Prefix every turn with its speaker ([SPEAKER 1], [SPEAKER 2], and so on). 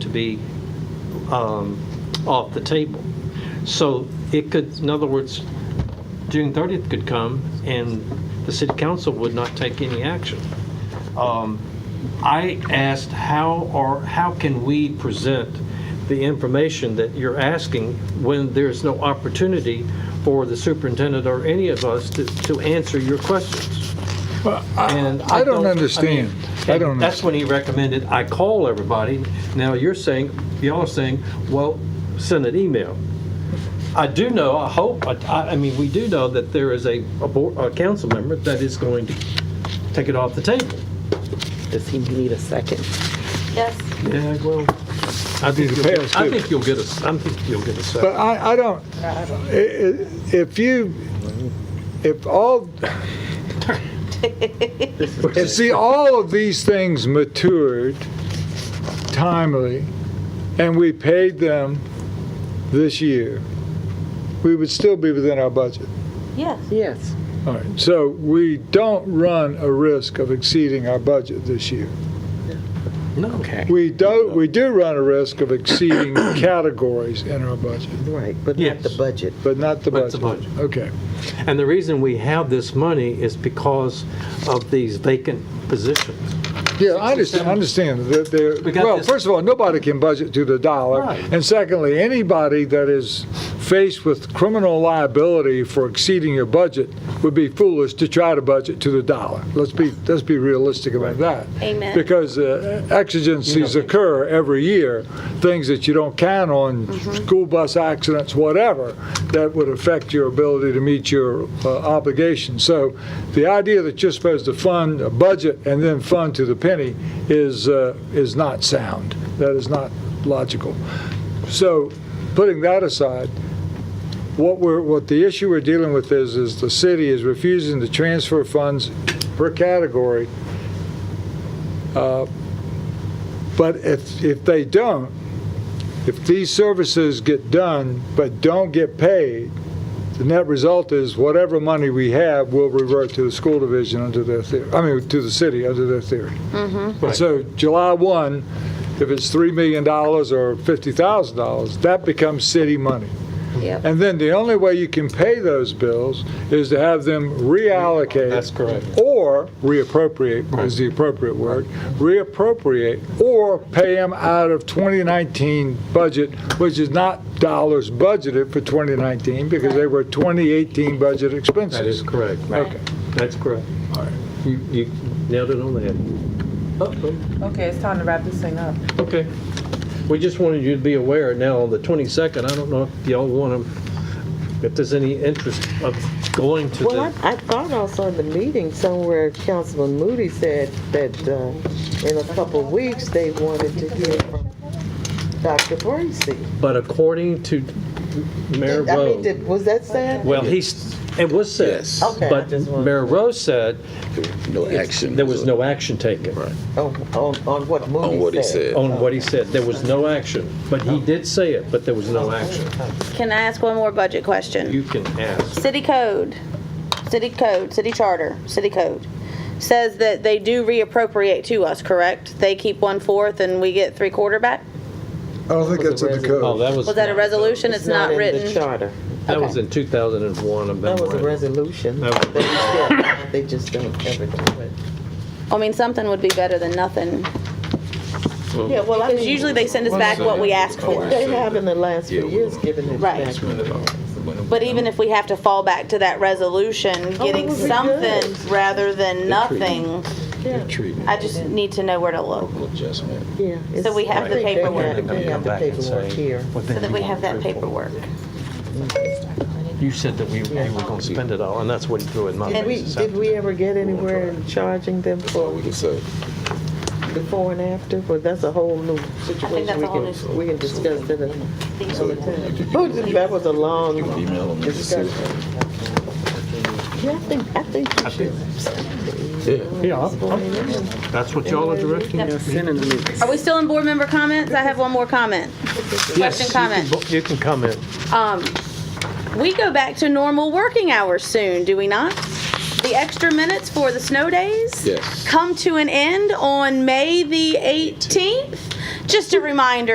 [SPEAKER 1] be um, off the table. So it could, in other words, June 30th could come, and the city council would not take any action. Um, I asked, how are, how can we present the information that you're asking when there's no opportunity for the superintendent or any of us to, to answer your questions? And
[SPEAKER 2] I don't
[SPEAKER 1] mean,
[SPEAKER 2] understand. I don't
[SPEAKER 1] and That's when he recommended I call everybody. Now you're saying, y'all are saying, well, send an email. I do know, I hope, I- I, I mean, we do know that there is a, a board, a council member that is going to take it off the table.
[SPEAKER 3] Does he need a second?
[SPEAKER 4] Yes.
[SPEAKER 1] Yeah, well, I think
[SPEAKER 2] Need to
[SPEAKER 1] you'll get,
[SPEAKER 2] pass,
[SPEAKER 1] I
[SPEAKER 2] too.
[SPEAKER 1] think you'll get a, s- I think you'll get a
[SPEAKER 2] But
[SPEAKER 1] second.
[SPEAKER 2] I, I don't, i- i- if you, if all, if see, all of these things matured timely, and we paid them this year, we would still be within our budget.
[SPEAKER 4] Yes.
[SPEAKER 3] Yes.
[SPEAKER 2] All right, so we don't run a risk of exceeding our budget this year.
[SPEAKER 1] No,
[SPEAKER 3] Okay.
[SPEAKER 2] We do, we do run a risk of exceeding categories in our budget,
[SPEAKER 3] Right, but not the
[SPEAKER 1] Yes.
[SPEAKER 3] budget.
[SPEAKER 2] but not the
[SPEAKER 1] But
[SPEAKER 2] budget.
[SPEAKER 1] it's a
[SPEAKER 2] Okay.
[SPEAKER 1] and the reason we have this money is because of these vacant positions.
[SPEAKER 2] Yeah, I understand, I understand that they're,
[SPEAKER 1] We got
[SPEAKER 2] well,
[SPEAKER 1] this-
[SPEAKER 2] first of all, nobody can budget to the dollar.
[SPEAKER 1] Right.
[SPEAKER 2] And secondly, anybody that is faced with criminal liability for exceeding your budget would be foolish to try to budget to the dollar. Let's be, let's be realistic about that.
[SPEAKER 4] Amen.
[SPEAKER 2] Because uh, exigencies occur every year, things that you don't count on, school bus accidents, whatever, that would affect your ability to meet your uh, obligations. So the idea that you're supposed to fund a budget and then fund to the penny is, uh, is not sound. That is not logical. So putting that aside, what we're, what the issue we're dealing with is, is the city is refusing to transfer funds per category. Uh, But if, if they don't, if these services get done but don't get paid, the net result is whatever money we have will revert to the school division under their theory, I mean, to the city under their theory. And so July 1, if it's $3 million or $50,000, that becomes city money.
[SPEAKER 4] Yep.
[SPEAKER 2] And then the only way you can pay those bills is to have them reallocate.
[SPEAKER 1] That's correct.
[SPEAKER 2] Or reappropriate is the appropriate word, reappropriate, or pay them out of 2019 budget, which is not dollars budgeted for 2019 because they were 2018 budget expenses.
[SPEAKER 1] That is correct.
[SPEAKER 2] Okay.
[SPEAKER 1] That's correct.
[SPEAKER 2] All right.
[SPEAKER 1] You, you nailed it on the head. Uh-oh.
[SPEAKER 5] Okay, it's time to wrap this thing up.
[SPEAKER 1] Oh, Okay. We just wanted you to be aware now on the 22nd, I don't know if y'all want to, if there's any interest of going to
[SPEAKER 3] Well,
[SPEAKER 1] the,
[SPEAKER 3] I, I thought also in the meeting somewhere Councilman Moody said that uh, in a couple of weeks, they wanted to hear from Dr. Bracy.
[SPEAKER 1] but according to Mayor
[SPEAKER 3] I mean,
[SPEAKER 1] Rose,
[SPEAKER 3] did- was that said?
[SPEAKER 1] well, he's, it was said.
[SPEAKER 6] Yes.
[SPEAKER 3] Okay, I
[SPEAKER 1] But
[SPEAKER 3] just wanted-
[SPEAKER 1] Mayor Rose said
[SPEAKER 6] No action.
[SPEAKER 1] there was no action taken
[SPEAKER 3] On, on, on what Moody said?
[SPEAKER 6] On what he said.
[SPEAKER 1] on what he said. There was no action, but he did say it, but there was no action.
[SPEAKER 4] Can I ask one more budget question?
[SPEAKER 1] You can ask.
[SPEAKER 4] City code, city code, city charter, city code says that they do reappropriate to us, correct? They keep one fourth and we get three quarter back?
[SPEAKER 2] I don't think that's in the code.
[SPEAKER 1] Oh, that was.
[SPEAKER 4] Was that a resolution? It's not
[SPEAKER 3] in the
[SPEAKER 4] written.
[SPEAKER 3] charter.
[SPEAKER 1] That was in 2001, a
[SPEAKER 3] That was a
[SPEAKER 1] memorandum.
[SPEAKER 3] resolution.
[SPEAKER 1] That was-
[SPEAKER 3] They said, They just don't ever do it.
[SPEAKER 4] I mean, something would be better than nothing.
[SPEAKER 3] Yeah, well,
[SPEAKER 4] Because usually they send us back what we ask for.
[SPEAKER 3] They have in the last
[SPEAKER 6] Yeah,
[SPEAKER 3] few
[SPEAKER 6] we
[SPEAKER 3] years
[SPEAKER 6] don't.
[SPEAKER 3] given it
[SPEAKER 4] Right.
[SPEAKER 3] back.
[SPEAKER 4] But even if we have to fall back to that resolution, getting
[SPEAKER 3] would be good.
[SPEAKER 4] something rather than nothing,
[SPEAKER 3] Yeah,
[SPEAKER 4] I just need to know where to look.
[SPEAKER 6] Adjustment.
[SPEAKER 3] yeah.
[SPEAKER 4] So we have the
[SPEAKER 3] They- they
[SPEAKER 4] paperwork.
[SPEAKER 3] have- They have the paperwork here.
[SPEAKER 4] So that we have that paperwork.
[SPEAKER 1] You said that we, we were gonna spend it all, and that's what he threw in my
[SPEAKER 3] Did we,
[SPEAKER 1] face.
[SPEAKER 3] did we ever get anywhere in charging them
[SPEAKER 6] All
[SPEAKER 3] for
[SPEAKER 6] we can say.
[SPEAKER 3] before and after? Well, that's a whole new
[SPEAKER 4] that's
[SPEAKER 3] situation.
[SPEAKER 4] a
[SPEAKER 3] We
[SPEAKER 4] whole new-
[SPEAKER 3] can, we can discuss it another
[SPEAKER 6] So you
[SPEAKER 3] time.
[SPEAKER 6] can-
[SPEAKER 3] But that was a
[SPEAKER 6] you can
[SPEAKER 3] long
[SPEAKER 6] email them and just see.
[SPEAKER 3] discussion. Yeah, I think, I think we should.
[SPEAKER 6] Yeah.
[SPEAKER 1] Yeah, I'm- I'm- that's what y'all are directing.
[SPEAKER 4] Are we still in board member comments? I have one more comment. Question, comment.
[SPEAKER 1] You can comment.
[SPEAKER 4] Um, we go back to normal working hours soon, do we not? The extra minutes for the snow days?
[SPEAKER 6] Yes.
[SPEAKER 4] Come to an end on May the 18th? Just a reminder